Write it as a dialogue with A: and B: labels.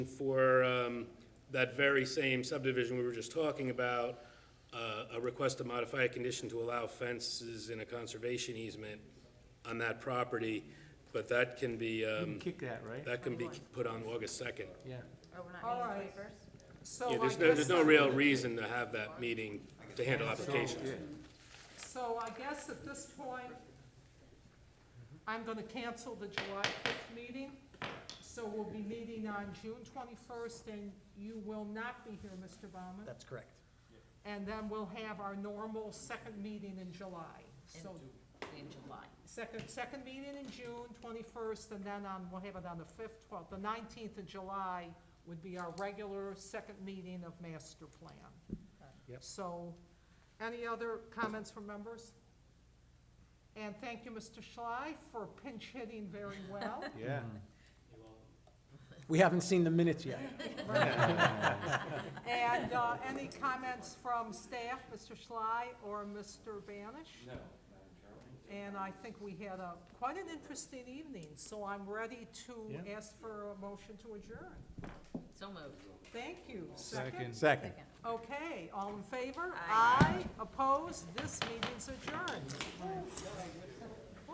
A: for um, that very same subdivision we were just talking about, uh, a request to modify a condition to allow fences in a conservation easement on that property, but that can be, um,
B: Kick that, right?
A: that can be put on August 2nd.
B: Yeah.
C: Oh, we're
D: All
C: not meeting
D: right.
C: waivers?
D: So
A: Yeah,
D: I
A: there's no, there's no
D: guess-
A: real reason to have that meeting to handle applications.
D: So I guess at this point, I'm gonna cancel the July fifth meeting. So we'll be meeting on June twenty-first, and you will not be here, Mr. Baumann.
E: That's correct.
D: And then we'll have our normal second meeting in July. So,
C: In July.
D: second, second meeting in June twenty-first, and then on, we'll have it on the fifth, twelfth, the nineteenth of July would be our regular second meeting of master plan.
E: Yep.
D: So, any other comments from members? And thank you, Mr. Schley, for pinch hitting very well.
B: Yeah.
E: We haven't seen the minutes yet.
D: And, uh, any comments from staff, Mr. Schley or Mr. Banish? No, And I think we had a, quite an interesting evening, so I'm ready to
B: Yeah.
D: ask for a motion to adjourn.
C: So moved.
D: Thank you. Second?
E: Second.
C: Second.
D: Okay, all in favor? Aye. Opposed? This meeting's adjourned.